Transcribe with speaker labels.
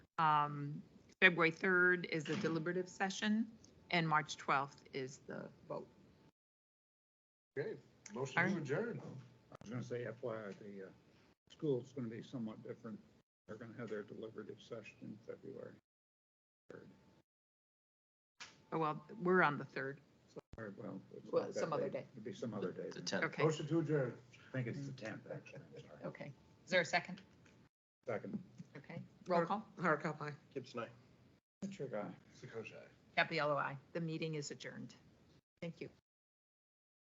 Speaker 1: um, February 3rd is the deliberative session, and March 12th is the vote.
Speaker 2: Okay, motion
Speaker 1: Alright.
Speaker 2: to adjourn.
Speaker 3: I was gonna say FYI, the, uh, school's gonna be somewhat different. They're gonna have their deliberative session in February.
Speaker 1: Oh, well, we're on the 3rd.
Speaker 3: Or, well. it's not
Speaker 1: Well,
Speaker 3: that
Speaker 1: some other day.
Speaker 3: It'd be some other day.
Speaker 4: The
Speaker 3: then.
Speaker 4: tenth.
Speaker 1: Okay,
Speaker 2: Motion to adjourn.
Speaker 3: I think it's the tenth, actually, I'm sorry.
Speaker 1: okay. Is there a second?
Speaker 3: Second,
Speaker 1: Okay. Roll call.
Speaker 5: Hardcop, aye.
Speaker 4: Gibson, aye.
Speaker 3: Trick eye.
Speaker 2: Sakoshai.
Speaker 1: Capello, aye. The meeting is adjourned. Thank you.